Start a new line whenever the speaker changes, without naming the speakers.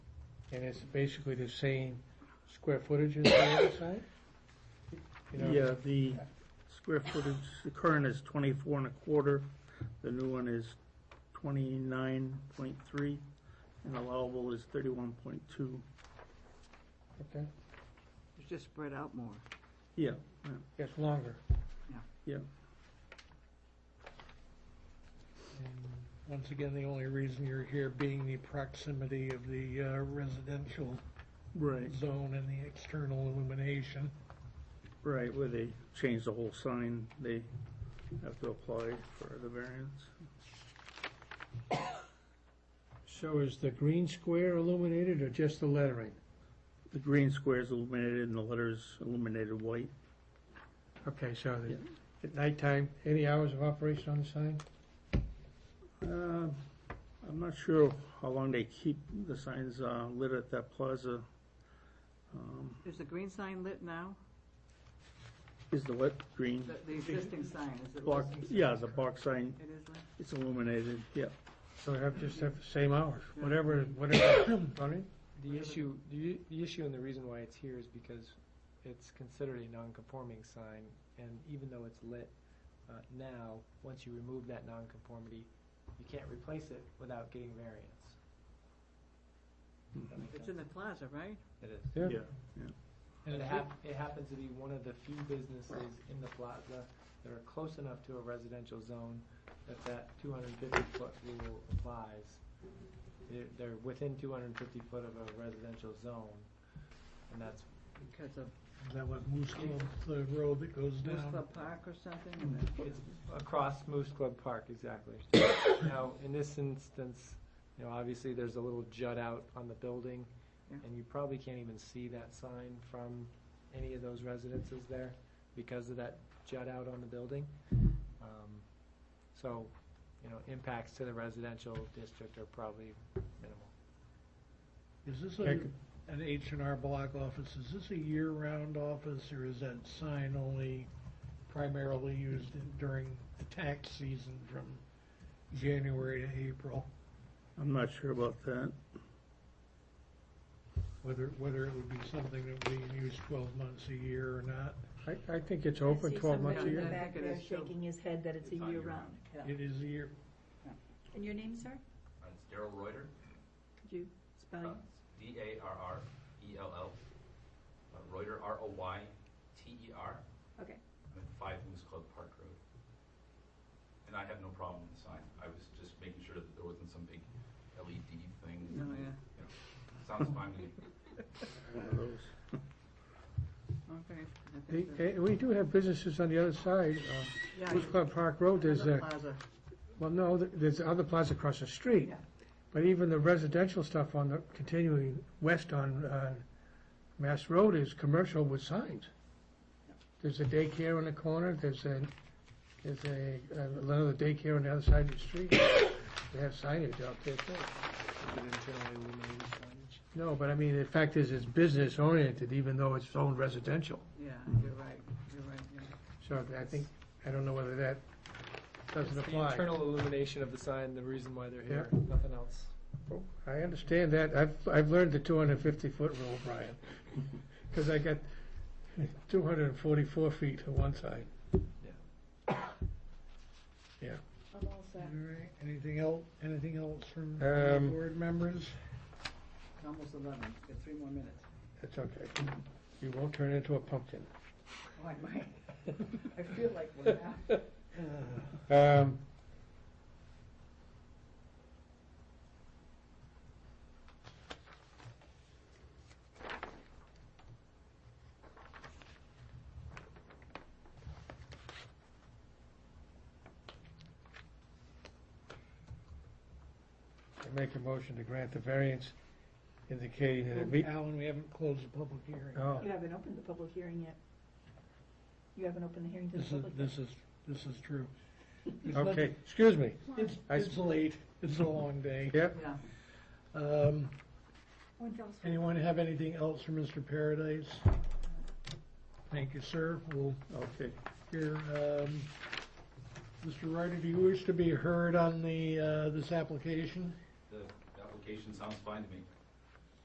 and it's basically the same square footage as the other side? You know,
Yeah, the square footage, the current is twenty-four and a quarter, the new one is twenty-nine point three, and allowable is thirty-one point two.
okay.
It's just spread out more.
Yeah,
It's longer.
yeah,
And Once again, the only reason you're here being the proximity of the uh, residential
right,
zone and the external illumination.
right, where they change the whole sign, they have to apply for the variance.
So is the green square illuminated or just the lettering?
The green square is illuminated and the letters illuminated white.
Okay, so the-
Yeah.
at nighttime, any hours of operation on the sign?
Uh, I'm not sure how long they keep the signs uh, lit at that plaza. Um,
Is the green sign lit now?
Is the what, green?
The, the existing sign, is it lit?
Block, yeah, the box sign,
It is lit?
it's illuminated, yeah.
So have, just have the same hours, whatever, whatever, running?
The issue, the, i- the issue and the reason why it's here is because it's considered a non-conforming sign, and even though it's lit uh, now, once you remove that non-conformity, you can't replace it without getting variance. Does that make
It's in
sense?
the plaza, right?
It is.
Yeah.
And it hap, it happens to be one of the few businesses in the plaza that are close enough to a residential zone that that two hundred and fifty foot rule applies. They're, they're within two hundred and fifty foot of a residential zone, and that's,
Because of
Is that what Moose Club, the road that goes
Moose
down?
Club Park or something? and then-
it's across Moose Club Park, exactly. Now, in this instance, you know, obviously, there's a little jut out on the building,
Yeah.
and you probably can't even see that sign from any of those residences there because of that jut out on the building. Um, So, you know, impacts to the residential district are probably minimal.
Is this a, an H and R block office, is this a year-round office, or is that sign only primarily used in- during the tax season from January to April?
I'm not sure about that.
Whether, whether it would be something that we use twelve months a year or not?
I, I think it's
open 12
months a year?
I see somebody in the back there shaking his head that it's a
It's on
year
your
round.
Yeah.
It is a year,
And your name, sir?
And it's Darrell Reuter,
Could you spell
uh,
it?
E D-A-R-R-E-L-L, uh, Reuter, R-O-Y-T-E-R.
Okay.
E I'm at Five Moose Club Park Road. And I have no problem with the sign. I was just making sure that there wasn't some big LED thing.
No, oh, yeah.
Sounds fine to me.
One of those.
Okay. I think
Hey,
that's-
hey, We do have businesses on the other side. uh,
Yeah,
Moose Club Park Road, there's
another
a,
plaza.
well, no, th- there's other plaza across the street.
Yeah.
But even the residential stuff on the, continuing west on uh, Mass Road is commercial with signs. There's a daycare on the corner, there's a, there's a, uh, another daycare on the other side of the street. They have signage out there too.
Is it internally illuminated signage?
No, but I mean, the fact is, it's business oriented, even though it's owned residential.
Yeah, you're right, you're right, yeah.
So I think, I don't know whether that doesn't
It's
apply.
The internal illumination of the sign, the reason why they're here, nothing else.
I understand that. I've, I've learned the two hundred and fifty foot rule, Brian, because I got two hundred and forty-four feet to one side.
I'm all
all
set.
right, anything else, anything else from the
Um,
board members?
It's almost eleven, got three more minutes.
That's okay. You won't turn into a pumpkin.
Oh, I might. I feel like one now.
Um, I make a motion to grant the variance indicating that it meet.
Alan, we haven't closed the public hearing.
Oh,
You haven't opened the public hearing yet. You haven't opened the hearing to the
This is,
public. yet.
this is, this is true. There's
okay,
nothing-
excuse me.
It's,
I s-
it's late, it's a long day.
Yep.
Yeah.
Um,
One fell swoop.
Anyone have anything else for Mr. Paradise? Thank you, sir. We'll
Okay,
hear, um, Mr. Ryder, do you wish to be heard on the, uh, this application?
The application sounds fine to me.